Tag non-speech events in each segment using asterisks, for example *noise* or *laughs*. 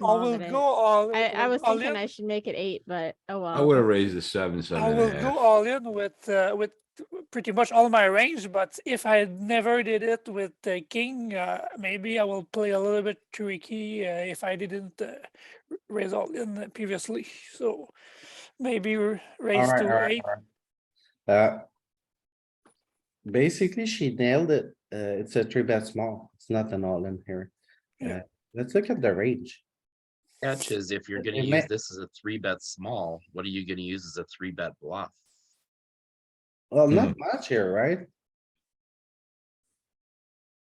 I small will today. go all. I, I with was all thinking in. I should make it eight, but oh I well. would have raised the seven, seven I and will a go half. all in with uh, with pretty much all my range, but if I never did it with the king, uh, maybe I will play a little bit tricky uh, if I didn't uh, r- raise all in previously. *laughs* So maybe r- raise Alright, to alright, eight. alright. Uh, Basically, she nailed it. Uh, it's a three bet small. It's not an all in here. Yeah. Uh, Let's look at the range. Catch is if you're gonna It may- use this as a three bet small, what are you gonna use as a three bet bluff? Well, not much here, right?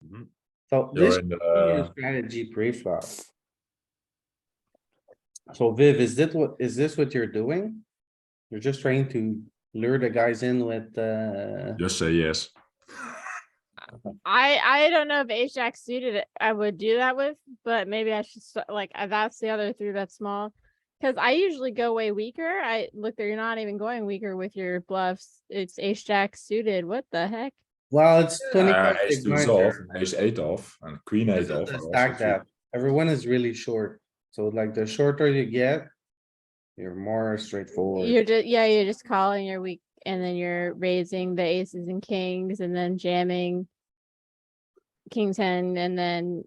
Mhm. So You're this in, is uh, strategy pre-flop. So Viv, is that what, is this what you're doing? You're just trying to lure the guys in with, uh, Just say yes. I, I don't know if ace jack suited it, I would do that with, but maybe I should, st- like, uh, that's the other three bet small. Cause I usually go way weaker. I, look, there, you're not even going weaker with your bluffs. It's ace jack suited. What the heck? well, it's twenty. Uh, ace two is off, and ace eight off, and queen eight off. are also Stack three. that. Everyone is really short. So like the shorter you get, you're more straightforward. You're just, yeah, you're just calling your weak and then you're raising the aces and kings and then jamming. King ten and then,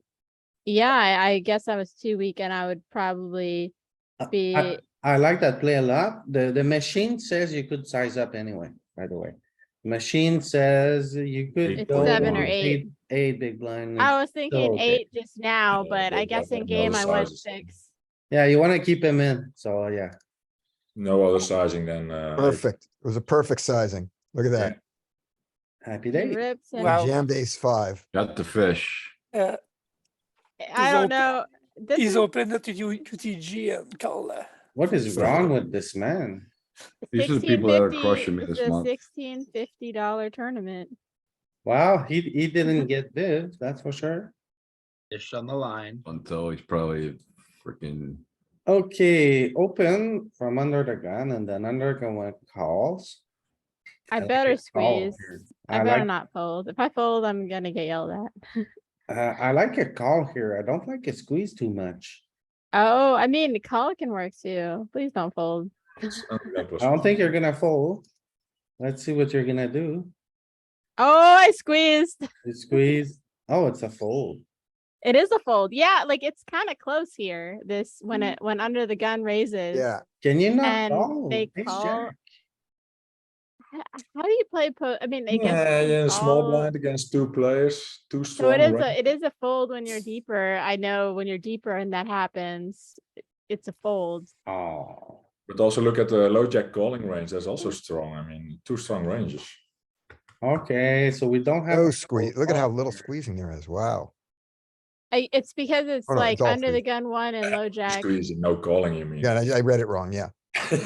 yeah, I, I guess I was too weak and I would probably Uh, I- be, I like that play a lot. The, the machine says you could size up anyway, by the way. Machine says you could. Eight It's go seven or with eight. Eight big blind. with- I was thinking okay. eight just now, Yeah, but I but guess that- in that game I knows went sizes. six. Yeah, you wanna keep him in, so yeah. No other sizing than, uh. eight. Perfect. It was a perfect sizing. Look at that. Happy He day. rips and- Wow. We Jammed ace five. Got the fish. Uh, I open. don't know. This he's is, open it to U- UTG and call. Uh, What is wrong with this man? These are the people that are 1650 crushing me it's this a month. Sixteen fifty dollar tournament. Wow, he, he *laughs* didn't get Viv, that's for sure. Fish on the line. Until he's probably freaking, Okay, open from under the gun and then under going calls. I like better your call here. squeeze. I better like, not fold. If I fold, I'm gonna get yelled at. uh, I like a call here. I don't like a squeeze too much. Oh, I mean, the call can work too. Please don't fold. that was I don't think you're gonna fold. Let's see what you're gonna do. Oh, I squeezed. You squeeze. Oh, it's a fold. It is a fold. Yeah, like it's kind of close here. This when Mm-hmm. it when under the gun raises. Yeah, Can you not And fold? they Ace call- jack. H- How do you play po? I mean, I guess. Yeah, you yeah, small call- blind against two players, two So strong. it is right? a, it is a fold when you're deeper. I know when you're deeper and that happens, it- it's a fold. Oh, But also look at the low jack calling range, that's also strong, I mean, two strong ranges. okay, so we don't have. no a Oh, squeeze. full Look at how call little here. squeezing there is. Wow. I, it's because it's Oh, no, like it's all under the squeeze. gun one and low jack. Squeezing, no calling, you Hmm. mean? *laughs* Yeah, I I read it wrong. Yeah.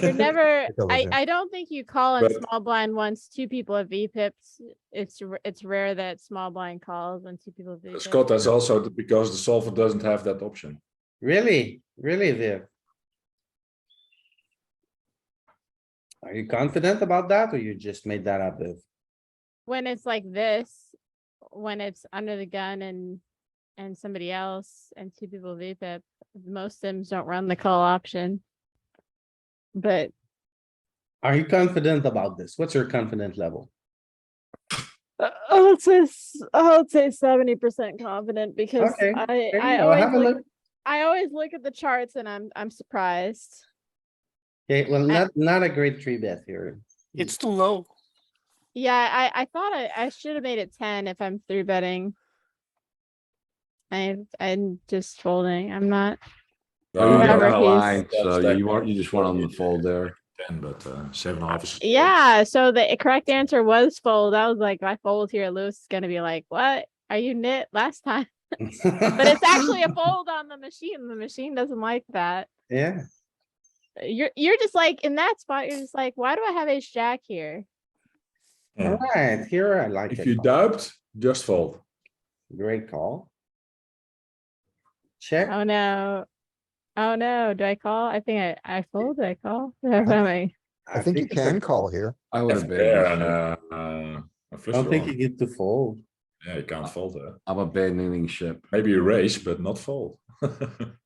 You're never, Because of I, him. I don't think you call in But- small blind once two people have V pips. It's, r- it's rare that small blind calls when two people have V Scott, uh pips. *laughs* that's also th- because the solver doesn't have that option. Really, really, Viv? Are you confident about that or you just made that up, Viv? When it's like this, when it's under the gun and, and somebody else and two people V pip, most sims don't run the call option. But Are you confident about this? What's your confident level? Uh, I would say s- I would say seventy percent confident because Okay, I there you I go. always Have a look, look. I always look at the charts and I'm I'm surprised. Okay, well, not, not a great three bet here. it's too low. Yeah, I I thought I I should have made it ten if I'm three betting. I I'm just folding. I'm not. But you Whatever, don't have a he's- line, So That's you that- want, you just want on the fold there. Ten, but uh, seven and a half is. Yeah, so the correct answer was fold. I was like, if I fold here, Lewis is gonna be like, "What are you knit last time?" But it's actually a fold on the machine. The machine doesn't like that. *laughs* Yeah, You're you're just like in that spot. You're just like, why do I have ace jack here? alright, here I like Hmm. If it. you doubt, just fold. Great call. Check. Oh no. Oh no, do I call? I think I, I fold, do I call? *laughs* What am I- I think you it's a can call here. I would would have have bet been. I I don't think you get to fold. Yeah, you can't fold there. I'm abandoning ship. Maybe you raise, but not fold. *laughs*